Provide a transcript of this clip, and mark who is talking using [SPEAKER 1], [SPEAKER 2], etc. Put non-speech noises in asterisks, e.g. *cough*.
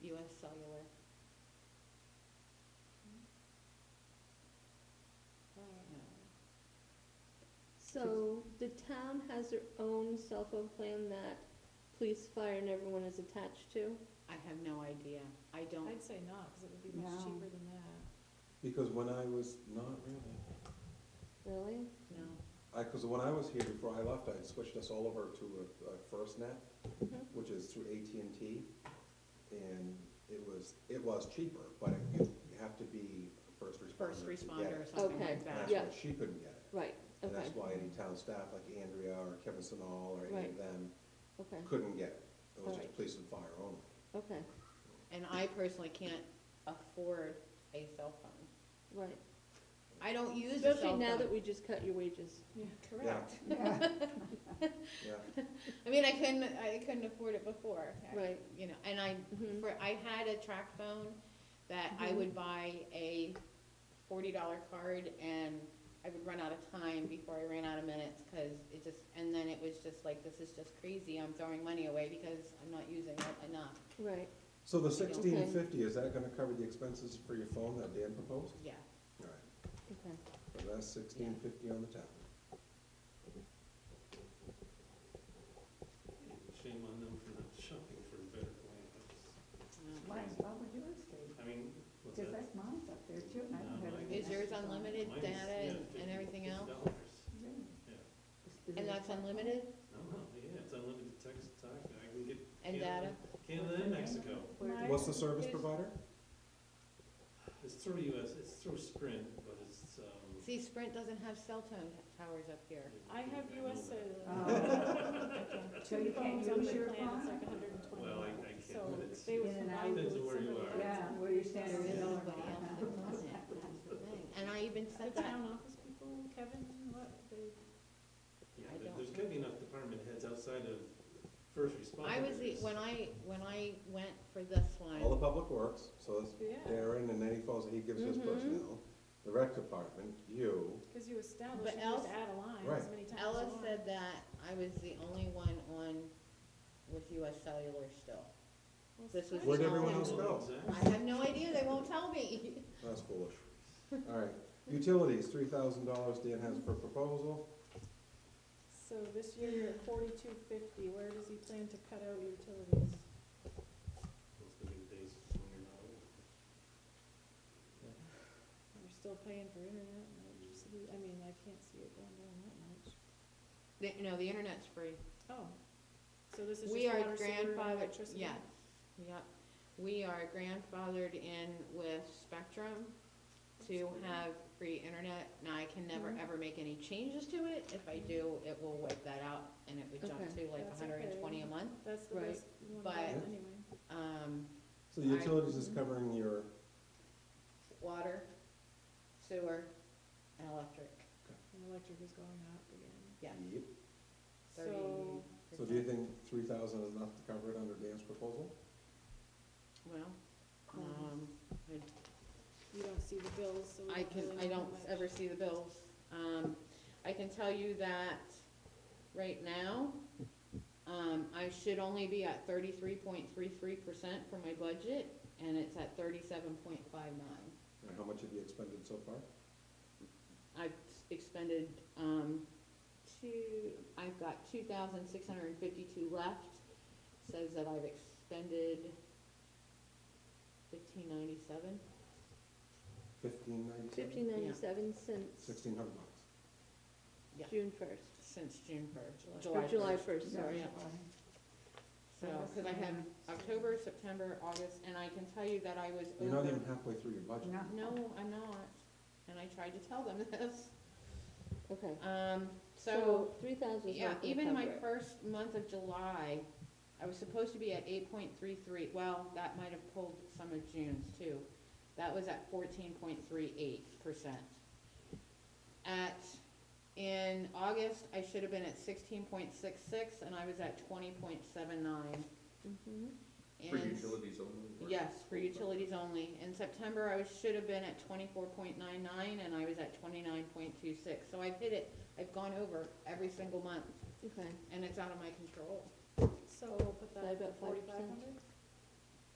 [SPEAKER 1] cellular. Uh, So the town has their own cell phone plan that police, fire, and everyone is attached to?
[SPEAKER 2] I have no idea. I don't,
[SPEAKER 3] I'd say not, because it would be much
[SPEAKER 2] No.
[SPEAKER 3] cheaper than that.
[SPEAKER 4] Because when I was, not really,
[SPEAKER 1] Really?
[SPEAKER 2] know.
[SPEAKER 4] I, cause when I was here before I left, I switched us all over to a, a FirstNet,
[SPEAKER 2] Mm-hmm.
[SPEAKER 1] Mhm.
[SPEAKER 4] which is through AT&T. And it was, it was cheaper, but it- you you have to be a first responder
[SPEAKER 2] first
[SPEAKER 4] to
[SPEAKER 2] responder
[SPEAKER 4] get
[SPEAKER 2] or
[SPEAKER 4] it.
[SPEAKER 2] something
[SPEAKER 1] Okay,
[SPEAKER 2] like
[SPEAKER 4] And
[SPEAKER 2] that.
[SPEAKER 4] that's
[SPEAKER 1] Yeah.
[SPEAKER 4] why she couldn't get it.
[SPEAKER 1] Right,
[SPEAKER 4] And
[SPEAKER 1] okay,
[SPEAKER 4] that's why any town staff like Andrea or Kevin Sinal or any of
[SPEAKER 1] Right.
[SPEAKER 4] them
[SPEAKER 1] okay,
[SPEAKER 4] couldn't get it. It was just
[SPEAKER 1] Alright.
[SPEAKER 4] police and fire only.
[SPEAKER 1] okay,
[SPEAKER 2] And I personally can't afford a cell phone.
[SPEAKER 1] right.
[SPEAKER 2] I don't use a
[SPEAKER 1] Especially
[SPEAKER 2] cell
[SPEAKER 1] now that
[SPEAKER 2] phone.
[SPEAKER 1] we just cut your wages.
[SPEAKER 3] Yeah,
[SPEAKER 4] correct. Yeah,
[SPEAKER 2] I mean, I couldn't, I couldn't afford it before. I-
[SPEAKER 1] Right.
[SPEAKER 2] You know, and I,
[SPEAKER 1] Mhm.
[SPEAKER 2] for, I had a track phone that I
[SPEAKER 1] Mhm.
[SPEAKER 2] would buy a forty dollar card and I would run out of time before I ran out of minutes, cause it just, and then it was just like, this is just crazy. I'm throwing money away because I'm not using it enough.
[SPEAKER 1] Right,
[SPEAKER 4] so the sixteen fifty, is that gonna cover the expenses for your phone that Dan proposed?
[SPEAKER 2] Yeah.
[SPEAKER 4] Alright,
[SPEAKER 1] okay.
[SPEAKER 4] so that's sixteen fifty on the town.
[SPEAKER 5] Shame on them for not shopping for a better plan. That's-
[SPEAKER 2] Um,
[SPEAKER 6] Mine's probably yours, Dave,
[SPEAKER 5] I mean, what's
[SPEAKER 6] because
[SPEAKER 5] that?
[SPEAKER 6] that's mine's up there too, and I don't
[SPEAKER 5] No,
[SPEAKER 6] have
[SPEAKER 5] mine
[SPEAKER 6] it.
[SPEAKER 2] Is yours unlimited
[SPEAKER 5] Mine is,
[SPEAKER 2] data
[SPEAKER 5] yeah,
[SPEAKER 2] and, and
[SPEAKER 5] 50
[SPEAKER 2] everything else?
[SPEAKER 5] $50.
[SPEAKER 6] Really?
[SPEAKER 5] Yeah.
[SPEAKER 6] Is- is it-
[SPEAKER 2] And that's unlimited
[SPEAKER 5] No, no, yeah, it's unlimited text talk, I can get
[SPEAKER 2] and data?
[SPEAKER 5] Canada, Canada and Mexico.
[SPEAKER 6] Where-
[SPEAKER 4] What's the service provider?
[SPEAKER 5] It's through US, it's through Sprint, but it's, um.
[SPEAKER 2] See, Sprint doesn't have cell phone towers up here.
[SPEAKER 3] I have
[SPEAKER 5] know
[SPEAKER 3] US
[SPEAKER 5] *laughs* that.
[SPEAKER 3] Cellular.
[SPEAKER 6] Oh.
[SPEAKER 3] I *laughs* can't.
[SPEAKER 6] So you can't
[SPEAKER 3] Phone's on
[SPEAKER 6] use
[SPEAKER 3] my
[SPEAKER 6] your
[SPEAKER 3] plan, It's
[SPEAKER 6] phone?
[SPEAKER 3] like hundred and twenty
[SPEAKER 5] Well, I- I
[SPEAKER 3] bucks,
[SPEAKER 5] can't,
[SPEAKER 3] so
[SPEAKER 5] but it's-
[SPEAKER 3] they would
[SPEAKER 6] In and
[SPEAKER 3] provide
[SPEAKER 6] out.
[SPEAKER 3] you with
[SPEAKER 5] Depends on where you
[SPEAKER 3] somebody
[SPEAKER 5] are.
[SPEAKER 3] else.
[SPEAKER 6] Yeah, where your standard
[SPEAKER 2] There's
[SPEAKER 6] is.
[SPEAKER 2] nobody else that does it. That's the thing. And I even
[SPEAKER 3] The
[SPEAKER 2] sent that,
[SPEAKER 3] town office people, Kevin, what, they,
[SPEAKER 5] Yeah,
[SPEAKER 2] I
[SPEAKER 5] there-
[SPEAKER 2] don't
[SPEAKER 5] there's gotta be enough department heads outside of first responders.
[SPEAKER 2] I was the, when I, when I went for this
[SPEAKER 4] All the
[SPEAKER 2] one,
[SPEAKER 4] public works, so it's
[SPEAKER 3] yeah,
[SPEAKER 4] Darren and any calls that he gives his
[SPEAKER 1] Mhm.
[SPEAKER 4] personnel, the rec department, you,
[SPEAKER 3] because you establish,
[SPEAKER 2] But
[SPEAKER 3] you just
[SPEAKER 2] Alice-
[SPEAKER 3] add a line as
[SPEAKER 4] Right.
[SPEAKER 3] many times as you
[SPEAKER 2] Ella
[SPEAKER 3] want.
[SPEAKER 2] said that I was the only one on with US Cellular still.
[SPEAKER 3] Well,
[SPEAKER 2] this was
[SPEAKER 4] where'd
[SPEAKER 2] the
[SPEAKER 4] everyone
[SPEAKER 2] only
[SPEAKER 4] else
[SPEAKER 2] one. I
[SPEAKER 4] go?
[SPEAKER 2] have no idea, they won't tell me. *laughs*
[SPEAKER 4] that's foolish. All right, utilities, three thousand dollars Dan has per proposal,
[SPEAKER 3] So this year you're at forty-two fifty, where does he plan to cut out utilities?
[SPEAKER 5] It's gonna be the days when you're not old.
[SPEAKER 3] We're still paying for internet and electricity, I mean, I can't see it going down that much.
[SPEAKER 2] The- No, the internet's free.
[SPEAKER 3] Oh, so this is just
[SPEAKER 2] We are
[SPEAKER 3] water, sewer, and
[SPEAKER 2] grandfathered,
[SPEAKER 3] electricity?
[SPEAKER 2] yeah, yep. We are grandfathered in with Spectrum to have free internet. Now, I can never,
[SPEAKER 3] Mhm.
[SPEAKER 2] ever make any changes to it. If I do, it will wipe that out and it would jump
[SPEAKER 1] Okay.
[SPEAKER 2] to like
[SPEAKER 3] That's
[SPEAKER 2] hundred and twenty a
[SPEAKER 3] okay.
[SPEAKER 2] month.
[SPEAKER 3] That's the
[SPEAKER 1] Right.
[SPEAKER 3] best one,
[SPEAKER 2] But-
[SPEAKER 3] anyway.
[SPEAKER 2] Um,
[SPEAKER 4] so utilities is covering your,
[SPEAKER 2] water, sewer, and electric.
[SPEAKER 3] And electric is going up again.
[SPEAKER 2] Yeah.
[SPEAKER 4] Yep.
[SPEAKER 2] Thirty
[SPEAKER 3] So,
[SPEAKER 4] So do you
[SPEAKER 2] percent.
[SPEAKER 4] think three thousand is enough to cover it under Dan's proposal?
[SPEAKER 2] Well, um,
[SPEAKER 3] Um, you don't see the bills, so we
[SPEAKER 2] I
[SPEAKER 3] don't
[SPEAKER 2] can,
[SPEAKER 3] really
[SPEAKER 2] I
[SPEAKER 3] know how
[SPEAKER 2] don't
[SPEAKER 3] much.
[SPEAKER 2] ever see the bills. Um, I can tell you that right now, um, I should only be at thirty-three point three-three percent for my budget, and it's at thirty-seven point five-nine.
[SPEAKER 4] And how much have you expended so far?
[SPEAKER 2] I've expended, um, two, I've got two thousand six hundred and fifty-two left, says that I've expended fifteen ninety-seven.
[SPEAKER 4] Fifteen ninety-seven?
[SPEAKER 1] Fifteen ninety-seven since
[SPEAKER 4] Sixteen hundred bucks.
[SPEAKER 1] June first,
[SPEAKER 2] Since June first,
[SPEAKER 1] or
[SPEAKER 2] July
[SPEAKER 1] July
[SPEAKER 2] first.
[SPEAKER 1] first, sorry.
[SPEAKER 2] yeah. So, cause I have October, September, August, and I can tell you that I was
[SPEAKER 4] You're not
[SPEAKER 2] over.
[SPEAKER 4] even halfway through your budget.
[SPEAKER 6] No.
[SPEAKER 2] No, I'm not, and I tried to tell them *laughs* this,
[SPEAKER 1] Okay,
[SPEAKER 2] um, so,
[SPEAKER 1] so three thousand is
[SPEAKER 2] yeah,
[SPEAKER 1] not gonna
[SPEAKER 2] even my
[SPEAKER 1] cover it.
[SPEAKER 2] first month of July, I was supposed to be at eight point three three, well, that might have pulled some of June's too. That was at fourteen point three eight percent. At, in August, I should have been at sixteen point six six, and I was at twenty point seven nine.
[SPEAKER 1] Mhm.
[SPEAKER 2] For utilities only? Yes, for utilities only. In September, I was, should have been at twenty-four point nine nine, and I was at twenty-nine point two six. So I've hit it, I've gone over every single month,
[SPEAKER 1] Okay,
[SPEAKER 2] and it's out of my control.
[SPEAKER 3] So we'll put that
[SPEAKER 1] By
[SPEAKER 3] at
[SPEAKER 1] about
[SPEAKER 3] forty-five
[SPEAKER 1] 5%.
[SPEAKER 3] hundred?